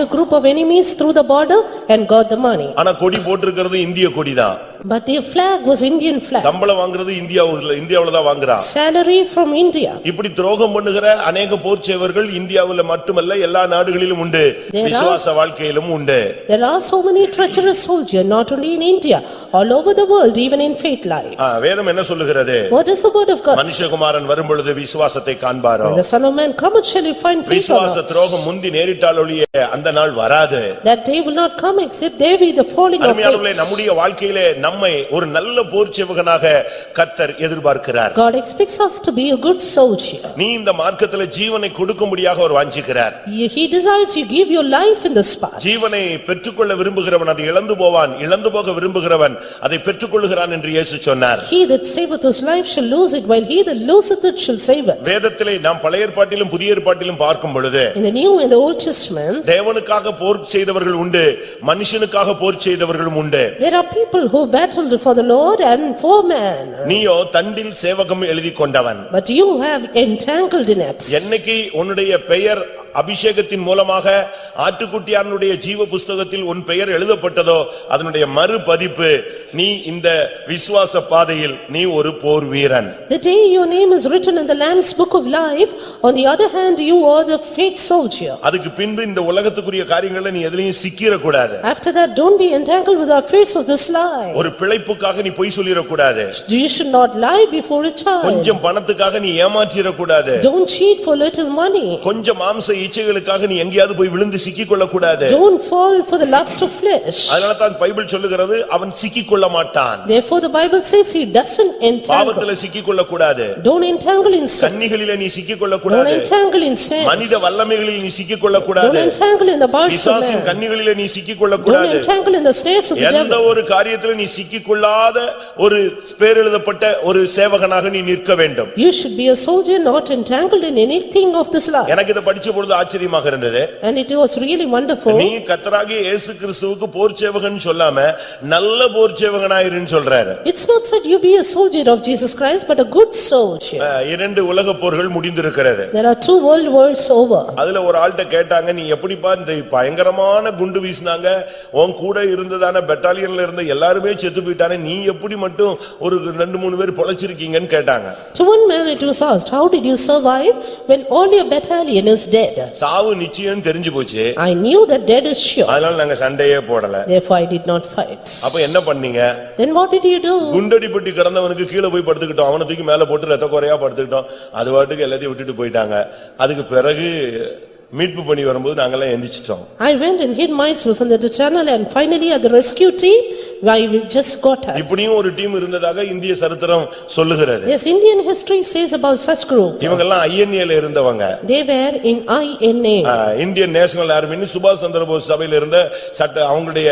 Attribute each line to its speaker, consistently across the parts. Speaker 1: a group of enemies through the border and got the money.
Speaker 2: ஆனா கொடி போட்டிருக்கிறது இந்திய கொடிதான்
Speaker 1: But their flag was Indian flag,
Speaker 2: சம்பளம் வாங்குறது இந்தியாவுல இந்தியாவுல தான் வாங்குறான்
Speaker 1: salary from India.
Speaker 2: இப்படி துரோகம் பண்ணுகிற அநேக போர்ச்சேவர்கள் இந்தியாவுல மட்டுமல்ல எல்லா நாடுகளிலும் உண்டு
Speaker 1: There are-
Speaker 2: விசுவாச வாழ்க்கையிலும் உண்டு
Speaker 1: There are so many treacherous soldiers, not only in India, all over the world, even in faith life.
Speaker 2: ஆ, வேதம் என்ன சொல்லுகிறது
Speaker 1: What is the word of God?
Speaker 2: மனுஷகுமாரன் வரும்பொழுது விசுவாசத்தை காண்பாரோ
Speaker 1: The son of man, come shall he find faith on
Speaker 2: விசுவாச
Speaker 1: earth?
Speaker 2: துரோகம் முந்தி நேரிட்டால் ஒழிய அந்த நாள் வராது
Speaker 1: That day will not come except there be the falling of
Speaker 2: அருமையானவர்களே
Speaker 1: faith.
Speaker 2: நம்முடைய வாழ்க்கையிலே நம்மை ஒரு நல்ல போர்ச்சேவகனாக கத்தர் எதிர்பார்க்கிறார்
Speaker 1: God expects us to be a good soldier.
Speaker 2: நீ இந்த மார்க்கத்திலே ஜீவனை கொடுக்கும்படியாக அவர் வாஞ்சிக்கிறார்
Speaker 1: He he desires you give your life in this path.
Speaker 2: ஜீவனை பெற்றுக்கொள்ள விரும்புகிறவன் அதை இழந்து போவான் இழந்து போக விரும்புகிறவன் அதை பெற்றுக்கொள்கிறான் என்று இயேசு சொன்னார்
Speaker 1: He that saveth his life shall lose it, while he that loseth it shall save it.
Speaker 2: வேதத்திலே நாம் பழைய ஏற்பாட்டிலும் புதிய ஏற்பாட்டிலும் பார்க்கும் பொழுது
Speaker 1: In the New and the Old Testaments,
Speaker 2: தேவனுக்காக போர் செய்தவர்கள் உண்டு மனுஷனுக்காக போர் செய்தவர்களும் உண்டு
Speaker 1: there are people who battled for the Lord and for man.
Speaker 2: நீயோ தண்டில் சேவகம் எழுதி கொண்டவன்
Speaker 1: But you have entangled in it.
Speaker 2: என்னைக்கு உன்னுடைய பெயர் அபிஷேகத்தின் மூலமாக ஆட்டுக்குட்டியானுடைய ஜீவ புஸ்தகத்தில் உன் பெயர் எழுதப்பட்டதோ அதனுடைய மறுபதிப்பு நீ இந்த விசுவாச பாதையில் நீ ஒரு போர் வீரன்
Speaker 1: The day your name is written in the Lamb's book of life, on the other hand, you are the faith soldier.
Speaker 2: அதுக்கு பின்பு இந்த உலகத்துக்குரிய காரியங்களை நீ எதுலயும் சிக்கிரக்கூடாது
Speaker 1: After that, don't be entangled with the affairs of this life.
Speaker 2: ஒரு பிழைப்புக்காக நீ பொய் சொல்லிடக்கூடாது
Speaker 1: You should not lie before a child.
Speaker 2: கொஞ்சம் பணத்துக்காக நீ ஏமாற்றிடக்கூடாது
Speaker 1: Don't cheat for little money.
Speaker 2: கொஞ்சம் மாம்ச இச்சைகளுக்காக நீ எங்கேயாவது போய் விழுந்து சிக்கிக்கொள்ளக்கூடாது
Speaker 1: Don't fall for the lust of flesh.
Speaker 2: அதனால தான் பைபிள் சொல்லுகிறது அவன் சிக்கிக்கொள்ள மாட்டான்
Speaker 1: Therefore, the Bible says he doesn't entangle.
Speaker 2: பாவத்துல சிக்கிக்கொள்ளக்கூடாது
Speaker 1: Don't entangle in sin.
Speaker 2: கன்னிகளில நீ
Speaker 1: Don't
Speaker 2: சிக்கிக்கொள்ளக்கூடாது
Speaker 1: entangle in sin.
Speaker 2: மனித வல்லமைகளில் நீ
Speaker 1: Don't
Speaker 2: சிக்கிக்கொள்ளக்கூடாது
Speaker 1: entangle in the bars of
Speaker 2: பிசாசின்
Speaker 1: man.
Speaker 2: கன்னிகளில நீ
Speaker 1: Don't
Speaker 2: சிக்கிக்கொள்ளக்கூடாது
Speaker 1: entangle in the snares of the
Speaker 2: எந்த
Speaker 1: devil.
Speaker 2: ஒரு காரியத்துல நீ சிக்கிக்கொள்ளாத ஒரு பேரெழுதப்பட்ட ஒரு சேவகனாக நீ நிற்க வேண்டும்
Speaker 1: You should be a soldier not entangled in anything of this life.
Speaker 2: எனக்கு இதை படிச்ச பொழுது ஆச்சரியமாக இருந்தது
Speaker 1: And it was really wonderful.
Speaker 2: நீ கத்தராகிய இயேசு கிறிஸ்துவுக்கு போர் சேவகன் சொல்லாம நல்ல போர் சேவகனாயிருன்னு சொல்றாரு
Speaker 1: It's not said you be a soldier of Jesus Christ, but a good soldier.
Speaker 2: அஹ், இரண்டு உலக போர்கள் முடிந்திருக்கிறது
Speaker 1: There are two world wars over.
Speaker 2: அதுல ஒரு ஆள்கிட்ட கேட்டாங்க நீ எப்படிப்பா இந்த பயங்கரமான குண்டு வீசினாங்க உன் கூட இருந்ததான பெட்டாலியன்ல இருந்த எல்லாருமே செத்து போயிட்டானே நீ எப்படி மட்டும் ஒரு ரெண்டு மூணு பேர் பொழைச்சிருக்கீங்கன்னு கேட்டாங்க
Speaker 1: To one man it was asked, "How did you survive when all your battalion is dead?"
Speaker 2: சாவு நிச்சயம் தெரிஞ்சு போச்சு
Speaker 1: I knew that dead is sure,
Speaker 2: அதனால நாங்க சண்டையே போடல
Speaker 1: therefore I did not fight.
Speaker 2: அப்ப என்ன பண்ணீங்க
Speaker 1: Then what did you do?
Speaker 2: குண்டடிப்பட்டி கிடந்தவனுக்கு கீழே போய் படுத்துக்கிட்டோம் அவனை தூக்கி மேல போட்டு ரத்த குறையா படுத்துக்கிட்டோம் அது வாட்டுக்கு எல்லாத்தையும் விட்டுட்டு போயிட்டாங்க அதுக்கு பிறகு மீட்பு பண்ணி வரும்போது நாங்கெல்லாம் எந்திரிச்சிட்டோம்
Speaker 1: I went and hid myself in the tunnel and finally at the rescue team, I just got up.
Speaker 2: இப்படியும் ஒரு டீம் இருந்ததாக இந்திய சரித்திரம் சொல்லுகிறது
Speaker 1: Yes, Indian history says about such group.
Speaker 2: இவங்கெல்லாம் ஐஎன்ஏல இருந்தவங்க
Speaker 1: They were in INA.
Speaker 2: Ah, Indian national ஆர்மின்னு சுபாஷ் சந்திரபோஸ் சபையில இருந்த சட்ட அவங்களுடைய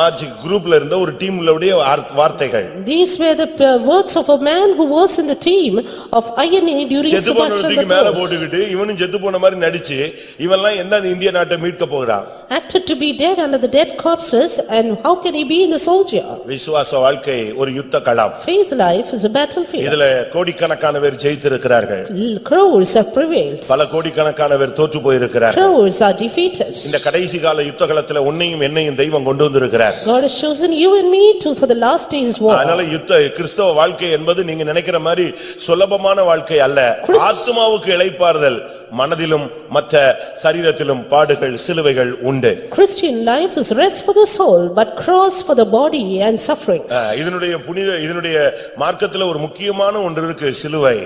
Speaker 2: மார்ச் குரூப்ல இருந்த ஒரு டீம்ல உடைய வார்த்- வார்த்தைகள்
Speaker 1: These were the uh, words of a man who was in the team of INA during
Speaker 2: செத்து
Speaker 1: Subhash
Speaker 2: போனவன்
Speaker 1: Chandra
Speaker 2: தூக்கி மேல
Speaker 1: Bose.
Speaker 2: போட்டுக்கிட்டு இவனும் செத்து போன மாதிரி நடிச்சு இவன்லாம் எந்த இந்திய நாட்டை மீட்க போகிறான்
Speaker 1: Acted to be dead under the dead corpses and how can he be in the soldier?
Speaker 2: விசுவாச வாழ்க்கை ஒரு யுத்த களம்
Speaker 1: Faith life is a battlefield.
Speaker 2: இதுல கோடிக்கணக்கான பேர் ஜெயித்திருக்கிறார்கள்
Speaker 1: L- Crowds have prevailed.
Speaker 2: பல கோடிக்கணக்கான பேர் தோற்று போயிருக்கிறார்கள்
Speaker 1: Crowds are defeated.
Speaker 2: இந்த கடைசி கால யுத்த களத்துல உன்னையும் என்னையும் தெய்வம் கொண்டு வந்திருக்கிறார்
Speaker 1: God has chosen you and me to for the last day's war.
Speaker 2: அதனால யுத்த கிறிஸ்தவ வாழ்க்கை என்பது நீங்க நினைக்கிற மாதிரி சுலபமான வாழ்க்கை அல்ல ஆத்துமாவுக்கு இளைப்பாறுதல் மனதிலும் மற்ற சரீரத்திலும் பாடுகள் சிலுவைகள் உண்டு
Speaker 1: Christian life is rest for the soul but cross for the body and sufferings.
Speaker 2: அஹ், இதனுடைய புனித இதனுடைய மார்க்கத்துல ஒரு முக்கியமான ஒன்று இருக்கு சிலுவை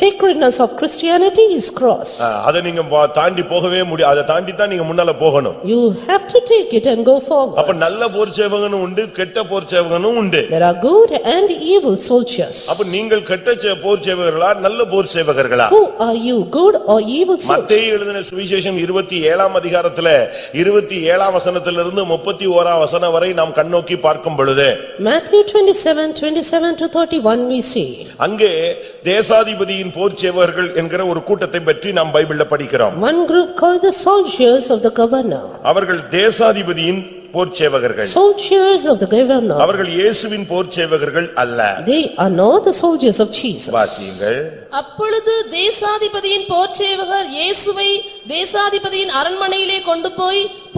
Speaker 1: Sacredness of Christianity is cross.
Speaker 2: அஹ், அதை நீங்க பா- தாண்டி போகவே முடியாது அதை தாண்டி தான் நீங்க முன்னால போகணும்
Speaker 1: You have to take it and go forward.
Speaker 2: அப்ப நல்ல போர்ச்சேவகனும் உண்டு கெட்ட போர்ச்சேவகனும் உண்டு
Speaker 1: There are good and evil soldiers.
Speaker 2: அப்ப நீங்கள் கெட்ட சே- போர்ச்சேவகர்களா நல்ல போர்ச்சேவகர்களா
Speaker 1: Who are you, good or evil soldier?
Speaker 2: மத்தேயு எழுதின சுவிசேஷம் இருபத்தி ஏழாம் அதிகாரத்துல இருபத்தி ஏழாம் வசனத்திலிருந்து முப்பத்தி ஓராம் வசனம் வரை நாம் கண்ணோக்கி பார்க்கும் பொழுது
Speaker 1: Matthew twenty-seven, twenty-seven to thirty-one we see.
Speaker 2: அங்கே தேசாதிபதியின் போர்ச்சேவகர்கள் என்கிற ஒரு கூட்டத்தை பற்றி நாம் பைபிள்ல படிக்கிறோம்
Speaker 1: One group called the soldiers of the governor.
Speaker 2: அவர்கள் தேசாதிபதியின் போர்ச்சேவகர்கள்
Speaker 1: Soldiers of the governor.
Speaker 2: அவர்கள் இயேசுவின் போர்ச்சேவகர்கள் அல்ல
Speaker 1: They are not the soldiers of Jesus.
Speaker 2: வாசியுங்கள்
Speaker 3: அப்பொழுது தேசாதிபதியின் போர்ச்சேவகர் இயேசுவை தேசாதிபதியின் அரண்மனையிலே கொண்டு போய்